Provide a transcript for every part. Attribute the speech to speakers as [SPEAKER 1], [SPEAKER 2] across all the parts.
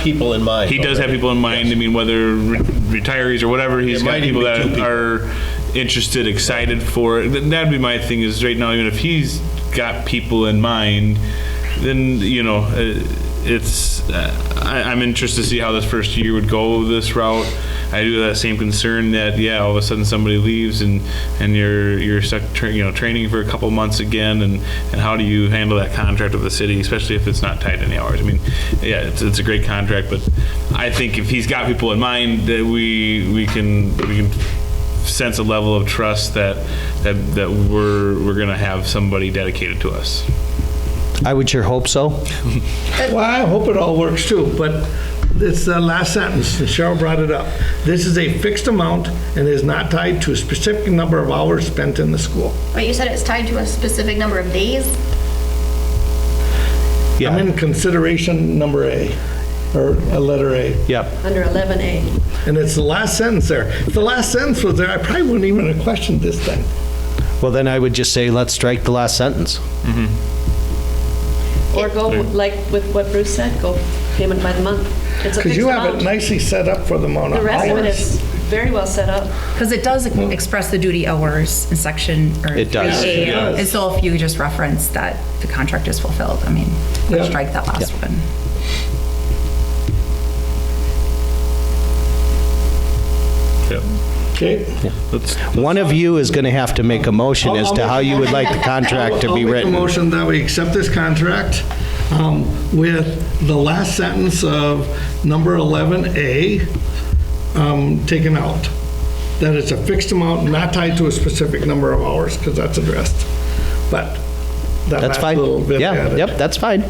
[SPEAKER 1] people in mind.
[SPEAKER 2] He does have people in mind. I mean, whether re- retirees or whatever, he's
[SPEAKER 1] It might
[SPEAKER 2] got people
[SPEAKER 1] even be
[SPEAKER 2] that
[SPEAKER 1] two people.
[SPEAKER 2] are interested, excited for it. Th- That'd be my thing. Is right now, even if he's got people in mind, then you know, uh, it's. Uh, I, I'm interested to see how this first year would go this route. I do have that same concern that yeah, all of a sudden somebody leaves and and you're you're stuck tra- you know training for a couple months again and and how do you handle that contract with the city, especially if it's not tied to any hours? I mean, yeah, it's, it's a great contract, but I think if he's got people in mind that we we can we can sense a level of trust that that that we're we're gonna have somebody dedicated to us.
[SPEAKER 3] I would sure hope so.
[SPEAKER 4] Well, I hope it all works too, but it's the last sentence, and Cheryl brought it up. This is a fixed amount and is not tied to a specific number of hours spent in the school.
[SPEAKER 5] But you said it's tied to a specific number of days?
[SPEAKER 4] I'm
[SPEAKER 3] Yeah,
[SPEAKER 4] in consideration number A, or a letter A.
[SPEAKER 3] yep.
[SPEAKER 6] Under 11A.
[SPEAKER 4] And it's the last sentence there. If the last sentence was there, I probably wouldn't even have questioned this thing.
[SPEAKER 3] Well, then I would just say, let's strike the last sentence.
[SPEAKER 6] Or go, like with what Bruce said, go payment by the month. It's a
[SPEAKER 4] Because
[SPEAKER 6] fixed
[SPEAKER 4] you have it
[SPEAKER 6] amount.
[SPEAKER 4] nicely set up for the amount
[SPEAKER 6] The
[SPEAKER 4] of
[SPEAKER 6] rest of it is
[SPEAKER 4] hours.
[SPEAKER 6] very well set up.
[SPEAKER 7] Because it does express the duty hours in section, or.
[SPEAKER 3] It does.
[SPEAKER 7] 3A.
[SPEAKER 4] It does.
[SPEAKER 7] And so if you just reference that the contract is fulfilled, I mean,
[SPEAKER 4] Yeah.
[SPEAKER 7] strike that last one.
[SPEAKER 2] Yep.
[SPEAKER 4] Okay?
[SPEAKER 2] Let's
[SPEAKER 3] One of you is going to have to make a motion as to how you would like the contract to
[SPEAKER 4] I'll-
[SPEAKER 3] be
[SPEAKER 4] I'll make a
[SPEAKER 3] written.
[SPEAKER 4] motion that we accept this contract um, with the last sentence of number 11A um, taken out. That it's a fixed amount, not tied to a specific number of hours, because that's addressed. But that
[SPEAKER 3] That's
[SPEAKER 4] last
[SPEAKER 3] fine.
[SPEAKER 4] little bit
[SPEAKER 3] Yeah,
[SPEAKER 4] added.
[SPEAKER 3] yep, that's fine.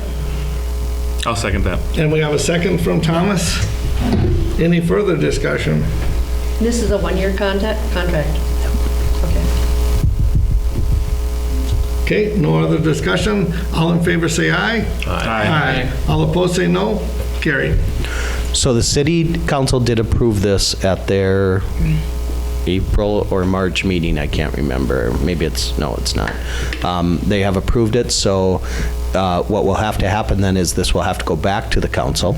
[SPEAKER 2] I'll second that.
[SPEAKER 4] And we have a second from Thomas. Any further discussion?
[SPEAKER 6] This is a one-year contact, contract. Okay.
[SPEAKER 4] Okay, no other discussion? All in favor, say aye.
[SPEAKER 2] Aye.
[SPEAKER 4] All opposed, say no. Carried.
[SPEAKER 3] So the city council did approve this at their April or March meeting, I can't remember. Maybe it's, no, it's not. Um, They have approved it, so uh, what will have to happen then is this will have to go back to the council.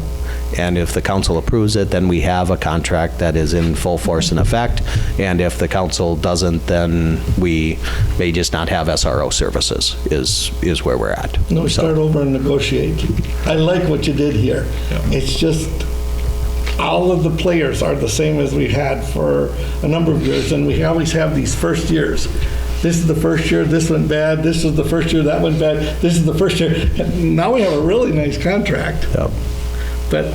[SPEAKER 3] And if the council approves it, then we have a contract that is in full force and effect. And if the council doesn't, then we may just not have SRO services, is, is where we're at.
[SPEAKER 4] No,
[SPEAKER 3] So-
[SPEAKER 4] start over and negotiate. I like what you did here. It's just, all of the players are the same as we had for a number of years, and we always have these first years. This is the first year, this went bad, this is the first year, that went bad, this is the first year. Now we have a really nice contract,
[SPEAKER 3] Yep.
[SPEAKER 4] but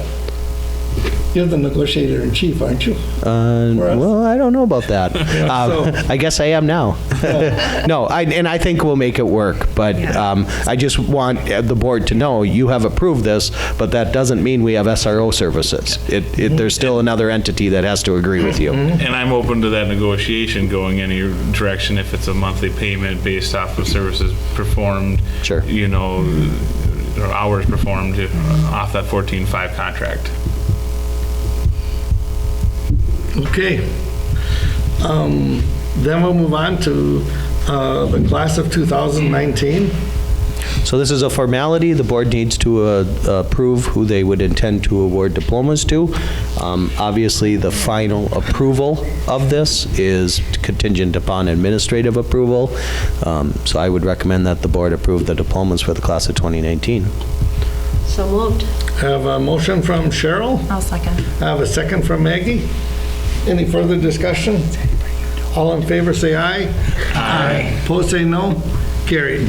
[SPEAKER 4] you're the negotiator in chief, aren't you?
[SPEAKER 3] Uh,
[SPEAKER 4] Whereas-
[SPEAKER 3] well, I don't know about that. Um, I guess I am now. no, I, and I think we'll make it work. But
[SPEAKER 7] Yeah.
[SPEAKER 3] um, I just want uh, the board to know you have approved this, but that doesn't mean we have SRO services. It, it, there's still another entity that has to agree with you.
[SPEAKER 2] And I'm open to that negotiation going any direction if it's a monthly payment based off of services performed.
[SPEAKER 3] Sure.
[SPEAKER 2] You know, or hours performed off that 14-5 contract.
[SPEAKER 4] Okay. Um, Then we'll move on to uh, the class of 2019.
[SPEAKER 3] So this is a formality. The board needs to uh, approve who they would intend to award diplomas to. Um, Obviously, the final approval of this is contingent upon administrative approval. Um, So I would recommend that the board approve the diplomas for the class of 2019.
[SPEAKER 6] So moved.
[SPEAKER 4] Have a motion from Cheryl.
[SPEAKER 7] I'll second.
[SPEAKER 4] Have a second from Maggie. Any further discussion? All in favor, say aye. Aye. Opposed, say no. Carried.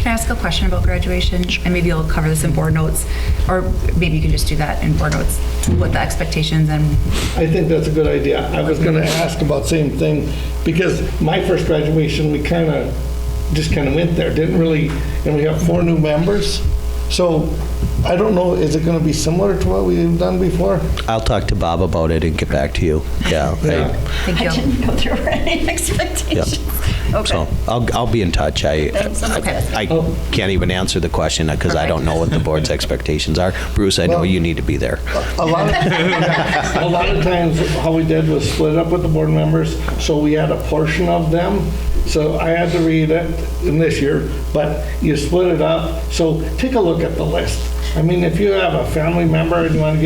[SPEAKER 7] Can I ask a question about graduation? And maybe you'll cover this in board notes, or maybe you can just do that in board notes, what the expectations and
[SPEAKER 4] I think that's a good idea. I was going to ask about same thing, because my first graduation, we kind of, just kind of went there, didn't really, and we have four new members. So I don't know, is it going to be similar to what we've done before?
[SPEAKER 3] I'll talk to Bob about it and get back to you. Yeah. I-
[SPEAKER 4] Yeah.
[SPEAKER 7] thank
[SPEAKER 5] I
[SPEAKER 7] you.
[SPEAKER 5] didn't know there were any expectations.
[SPEAKER 3] So I'll, I'll be in touch. I, I I can't even answer the question because I don't know what the board's expectations are. Bruce, I know you need to be there.
[SPEAKER 4] A lot, of, a lot of times, how we did was split up with the board members, so we had a portion of them. So I had to read it in this year, but you split it up. So take a look at the list. I mean, if you have a family member and you want to